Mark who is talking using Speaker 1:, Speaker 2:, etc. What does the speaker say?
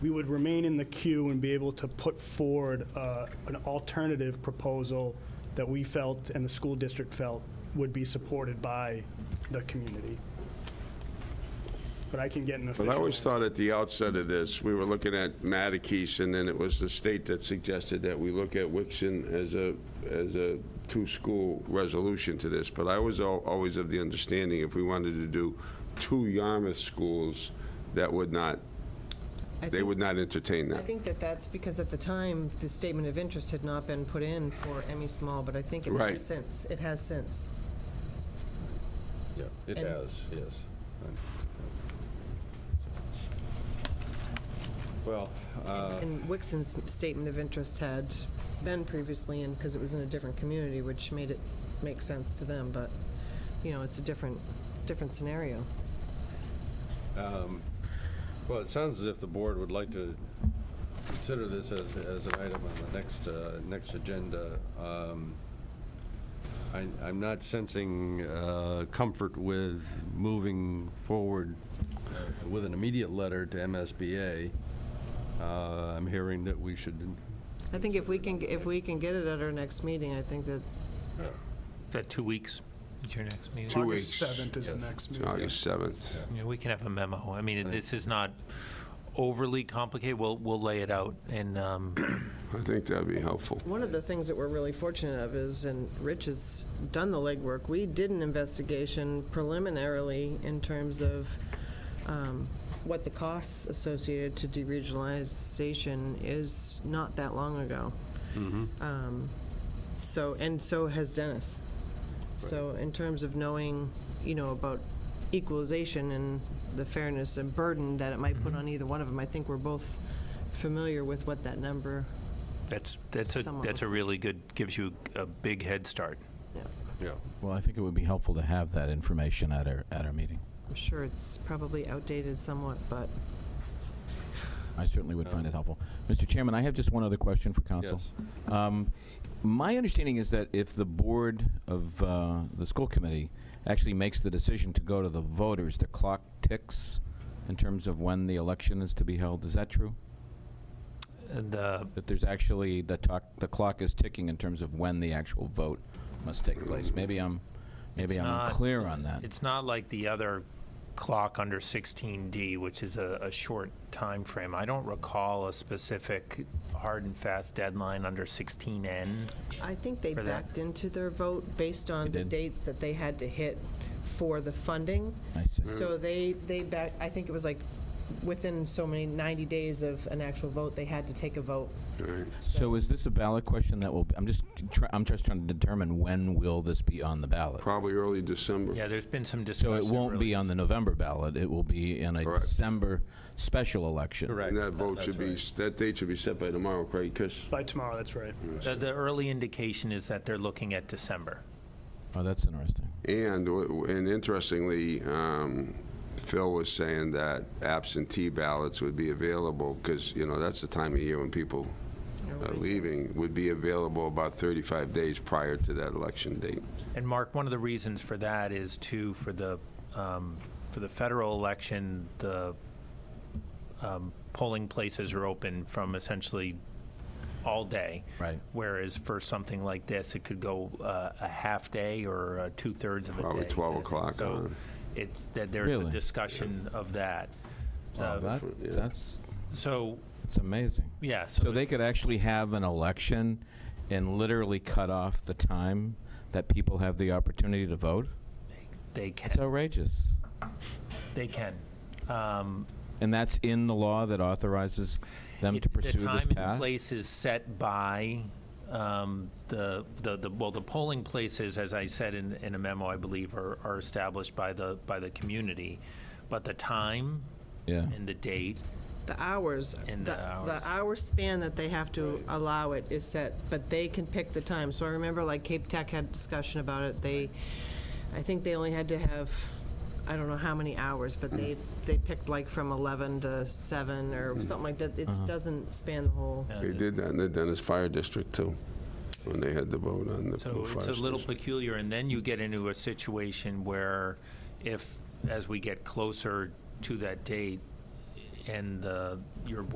Speaker 1: we would remain in the queue and be able to put forward uh, an alternative proposal that we felt and the school district felt would be supported by the community. But I can get an
Speaker 2: But
Speaker 1: official.
Speaker 2: I always thought at the outset of this, we were looking at Mattakese, and then it was the state that suggested that we look at Wixon as a, as a two-school resolution to this. But I was al- always of the understanding, if we wanted to do two Yarmouth schools, that would not,
Speaker 3: I
Speaker 2: they
Speaker 3: think-
Speaker 2: would not entertain
Speaker 3: I
Speaker 2: that.
Speaker 3: think that that's because at the time, the statement of interest had not been put in for Emmy Small, but I think it
Speaker 2: Right.
Speaker 3: has since, it has since.
Speaker 4: Yeah, it
Speaker 3: And-
Speaker 4: has, yes. Well, uh,
Speaker 3: And Wixon's statement of interest had been previously in, because it was in a different community, which made it make sense to them, but, you know, it's a different, different scenario.
Speaker 4: well, it sounds as if the board would like to consider this as, as an item on the next, uh, next agenda. Um, I, I'm not sensing uh, comfort with moving forward uh, with an immediate letter to MSBA. Uh, I'm hearing that we should,
Speaker 3: I think if we can, if we can get it at our next meeting, I think that
Speaker 5: Is that uh, two weeks is your next meeting?
Speaker 2: Two
Speaker 1: August
Speaker 2: weeks.
Speaker 1: 7th is the
Speaker 4: Yes.
Speaker 1: next meeting.
Speaker 2: August 7th.
Speaker 5: You know, we can have a memo. I mean, this is not overly complicated. We'll, we'll lay it out and, um,
Speaker 2: I think that'd be helpful.
Speaker 3: One of the things that we're really fortunate of is, and Rich has done the legwork, we did an investigation preliminarily in terms of um, what the costs associated to deregionalization is not that long ago. Um, So, and so has Dennis. So in terms of knowing, you know, about equalization and the fairness and burden that it might put on either one of them, I think we're both familiar with what that number
Speaker 5: that's, that's a,
Speaker 3: Somewhat
Speaker 5: that's a
Speaker 3: looks-
Speaker 5: really good, gives you a big head start.
Speaker 4: yeah.
Speaker 6: Well, I think it would be helpful to have that information at our, at our meeting.
Speaker 3: I'm sure it's probably outdated somewhat, but
Speaker 6: I certainly would
Speaker 5: Um,
Speaker 6: find it helpful. Mr. Chairman, I have just one other question for council. Um, My understanding is that if the board of uh, the school committee actually makes the decision to go to the voters, the clock ticks in terms of when the election is to be held. Is that true?
Speaker 5: And, uh,
Speaker 6: That there's actually, the talk, the clock is ticking in terms of when the actual vote must take place? Maybe I'm, maybe
Speaker 5: It's
Speaker 6: I'm
Speaker 5: not-
Speaker 6: unclear on that.
Speaker 5: it's not like the other clock under 16D, which is a, a short time frame. I don't recall a specific hard and fast deadline under 16N.
Speaker 3: I think they
Speaker 5: For that.
Speaker 3: backed into their vote based on
Speaker 6: They
Speaker 3: the
Speaker 6: did?
Speaker 3: dates that they had to hit for the funding.
Speaker 6: I see.
Speaker 3: So they, they back, I think it was like within so many, 90 days of an actual vote, they had to take a vote.
Speaker 6: So is this a ballot question that will, be- I'm just, try- I'm just trying to determine when will this be on the ballot?
Speaker 2: Probably early December.
Speaker 5: Yeah, there's been some
Speaker 6: So
Speaker 5: discussion.
Speaker 6: it won't be
Speaker 5: really.
Speaker 6: on the November ballot, it will be in a
Speaker 2: Correct.
Speaker 6: December special election.
Speaker 4: Correct.
Speaker 2: And that vote should be,
Speaker 4: That's right.
Speaker 2: that date should be set by tomorrow, Craig, because
Speaker 1: By tomorrow, that's right.
Speaker 5: The, the early indication is that they're looking at December.
Speaker 6: Oh, that's interesting.
Speaker 2: And, w- and interestingly, um, Phil was saying that absentee ballots would be available, because, you know, that's the time of year when people are leaving, would be available about 35 days prior to that election date.
Speaker 5: And Mark, one of the reasons for that is too, for the, um, for the federal election, the um, polling places are open from essentially all day.
Speaker 6: Right.
Speaker 5: Whereas for something like this, it could go uh, a half day or uh, two-thirds of a day.
Speaker 2: Probably 12
Speaker 5: kinda thing.
Speaker 2: o'clock
Speaker 5: So
Speaker 2: on.
Speaker 5: it's, that there's a
Speaker 6: Really?
Speaker 5: discussion of that.
Speaker 6: Wow,
Speaker 5: Uh,
Speaker 6: that-
Speaker 2: yeah.
Speaker 6: That's,
Speaker 5: So,
Speaker 6: it's amazing.
Speaker 5: yeah.
Speaker 6: So they could actually have an election and literally cut off the time that people have the opportunity to vote?
Speaker 5: They
Speaker 6: It's
Speaker 5: can,
Speaker 6: outrageous.
Speaker 5: they can. Um,
Speaker 6: And that's in the law that authorizes them
Speaker 5: It-
Speaker 6: to pursue this path?
Speaker 5: The time and place is set by um, the, the, the- well, the polling places, as I said in, in a memo, I believe, are, are established by the, by the community. But the time
Speaker 6: Yeah.
Speaker 5: and the date,
Speaker 3: The hours,
Speaker 5: And
Speaker 3: the
Speaker 5: the hours.
Speaker 3: the hour span that they have to allow it is set, but they can pick the time. So I remember like Cape Tech had discussion about it. They, I think they only had to have, I don't know how many hours, but they, they picked like from 11 to 7 or something like that. It doesn't span the whole.
Speaker 2: They did that in the Dennis Fire District, too, when they had the vote on the
Speaker 5: so
Speaker 2: fire
Speaker 5: it's a little
Speaker 2: station.
Speaker 5: peculiar. And then you get into a situation where if, as we get closer to that date and the, your board